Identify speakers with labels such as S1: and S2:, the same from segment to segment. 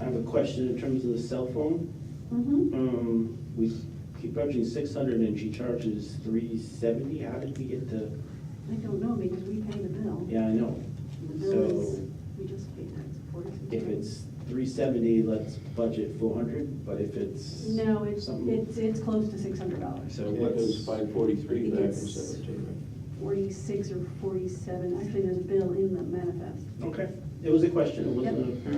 S1: I have a question in terms of the cell phone.
S2: Mhm.
S1: Um, we keep charging six hundred and she charges three seventy. How did we get the,
S2: I don't know, because we pay the bill.
S1: yeah, I know.
S2: The bill is,
S1: So-
S2: we just pay tax forty-six.
S1: If it's three seventy, let's budget four hundred, but if it's.
S2: No, it's,
S1: something-
S2: it's, it's close to six hundred dollars.
S1: So
S3: It was
S1: what's,
S3: five forty-three back in
S2: It's-
S3: seventeen,
S2: Forty-six or forty-seven, actually, there's a bill in the manifest.
S1: okay, it was a question, it wasn't a,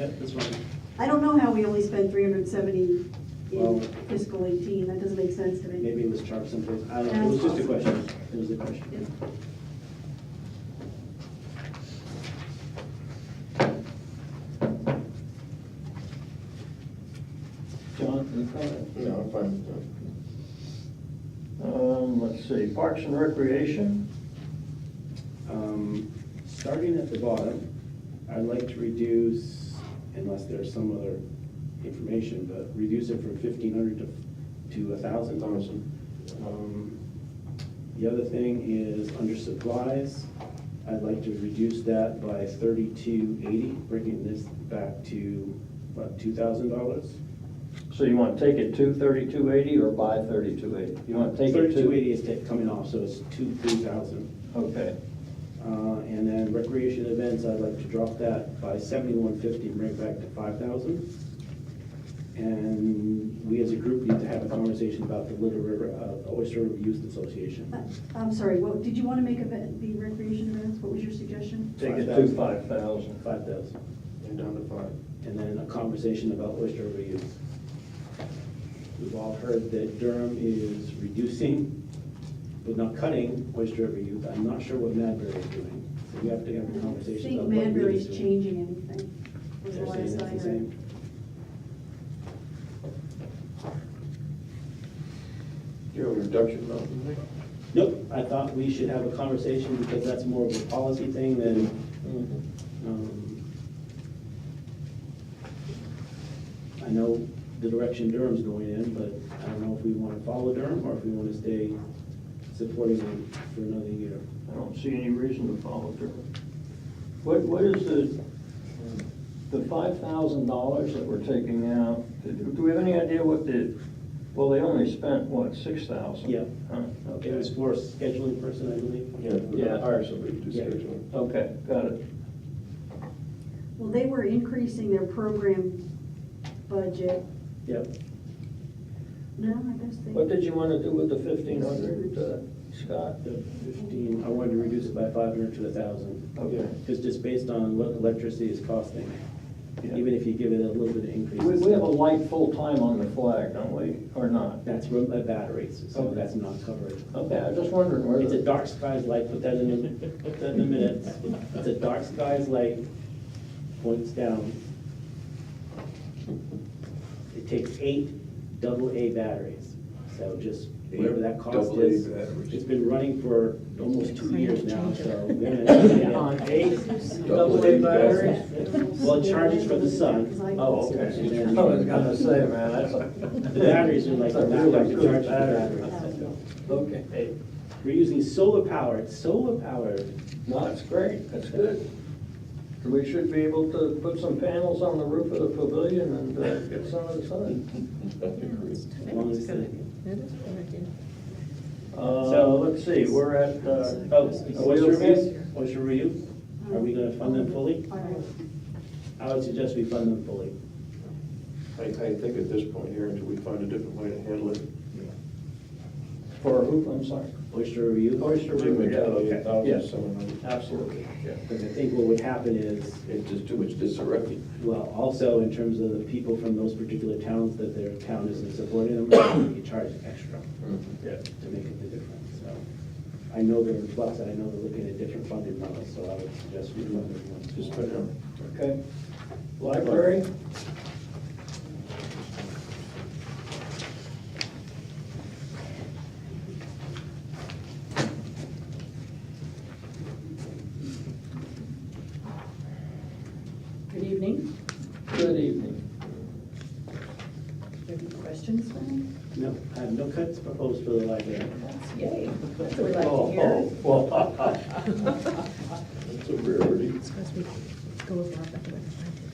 S1: yeah, that's fine.
S2: I don't know how we only spent three hundred seventy
S1: Well-
S2: in fiscal eighteen, that doesn't make sense to me.
S1: Maybe it was charged someplace. I don't know, it was just a question. It was a question.
S2: Yep.
S4: John, any comment?
S3: right? No, I'm fine with that.
S4: Um, let's see, Parks and Recreation,
S1: Um, Starting at the bottom, I'd like to reduce, unless there's some other information, but reduce it from fifteen hundred to, to a thousand.
S3: Thousand.
S1: Um, The other thing is under supplies, I'd like to reduce that by thirty-two eighty, bringing this back to about two thousand dollars.
S4: so you want to take it to thirty-two eighty or by thirty-two eighty? You want to take it to?
S1: Thirty-two eighty is ta- coming off, so it's two, three thousand.
S4: Okay,
S1: Uh, And then recreation events, I'd like to drop that by seventy-one fifty, bring it back to five thousand. And we as a group need to have a conversation about the Little River, uh, Oyster River Youth Association.
S2: Uh, I'm sorry, what, did you want to make of it, the recreation events, what was your suggestion?
S4: take it to
S1: 5,000.
S4: five thousand.
S1: Five thousand,
S3: And down to five.
S1: and then a conversation about Oyster River Youth. We've all heard that Durham is reducing, but not cutting Oyster River Youth. I'm not sure what Madbury is doing, so we have to have a
S2: I
S1: conversation
S2: think
S1: about what we're
S2: Madbury's
S1: doing.
S2: changing anything, was the
S1: They're saying
S2: last I
S1: that's the
S2: heard.
S1: same.
S3: Do you have a reduction mountain?
S1: Nope, I thought we should have a conversation because that's more of a policy thing than,
S3: Mm-hmm.
S1: um, I know the direction Durham's going in, but I don't know if we want to follow Durham or if we want to stay supporting them for another year.
S4: I don't see any reason to follow through. What, what is the, the five thousand dollars that we're taking out? Do do we have any idea what the, well, they only spent, what, six thousand?
S1: Yeah. It
S4: Okay,
S1: was for scheduling person, I believe.
S3: Yeah,
S4: Yeah.
S3: hire somebody to
S1: Yeah.
S3: schedule.
S4: okay, got it.
S2: Well, they were increasing their program budget,
S1: Yep.
S2: no, I guess they.
S4: What did you want to do with the fifteen hundred, uh, Scott?
S1: The fifteen, I wanted to reduce it by five hundred to a thousand.
S4: Okay.
S1: Because just based on what electricity is costing,
S4: Yeah.
S1: even if you give it a little bit of increase.
S4: We,
S1: it's
S4: we have a
S1: still-
S4: light full-time on the flag, don't we, or not?
S1: That's room by batteries, so
S4: Okay.
S1: that's not covered.
S4: Okay, I was just wondering where
S1: It's a
S4: the,
S1: dark skies light, put that in, the- put that in the minutes. It's a dark skies light, points down. It takes eight double A batteries, so just whatever that cost
S3: Double A
S1: is.
S3: batteries.
S1: It's been running for almost two years now, so. we're
S4: Yeah,
S1: gonna-
S4: on eight
S3: Double A
S4: double-A batteries?
S1: Well, it charges for the sun.
S4: Oh, okay.
S1: And
S4: I
S1: then-
S4: was gonna say, man, that's a.
S1: The batteries are like,
S4: That's a
S1: not like
S4: really
S1: the charge
S4: good
S1: for
S4: battery.
S1: the batteries.
S4: Okay,
S1: We're using solar power, it's solar powered.
S4: no, that's great, that's good. We should be able to put some panels on the roof of the pavilion and uh, get some of the sun.
S3: I agree.
S1: as long as the-
S5: That is a good idea.
S4: So, Uh, let's see, we're at, uh,
S1: Oh, Oyster Reef, Oyster Reef, are we gonna fund them fully?
S2: All right.
S1: I would suggest we fund them fully.
S3: I, I think at this point here, until we find a different way to handle it.
S4: for who, I'm sorry?
S1: Oyster Reef.
S4: Oyster River, yeah, okay, yes, absolutely, yeah.
S1: Because I think what would happen is,
S3: It's just too much disarray.
S1: well, also in terms of the people from those particular towns that their town isn't supporting them, you charge extra
S3: Mm-hmm.
S4: Yeah.
S1: to make up the difference, so. I know they're in flux, and I know they're looking at different funding models, so I would suggest we fund them once.
S3: Just put it on.
S4: Okay. Library?
S2: Good evening.
S4: Good evening.
S5: Any questions, Frank?
S1: No, I have no cuts proposed for the library.
S5: That's yay. That's what we like to
S4: Oh,
S5: hear.
S4: oh, well,
S3: It's a rarity.
S5: It's because we go over our back.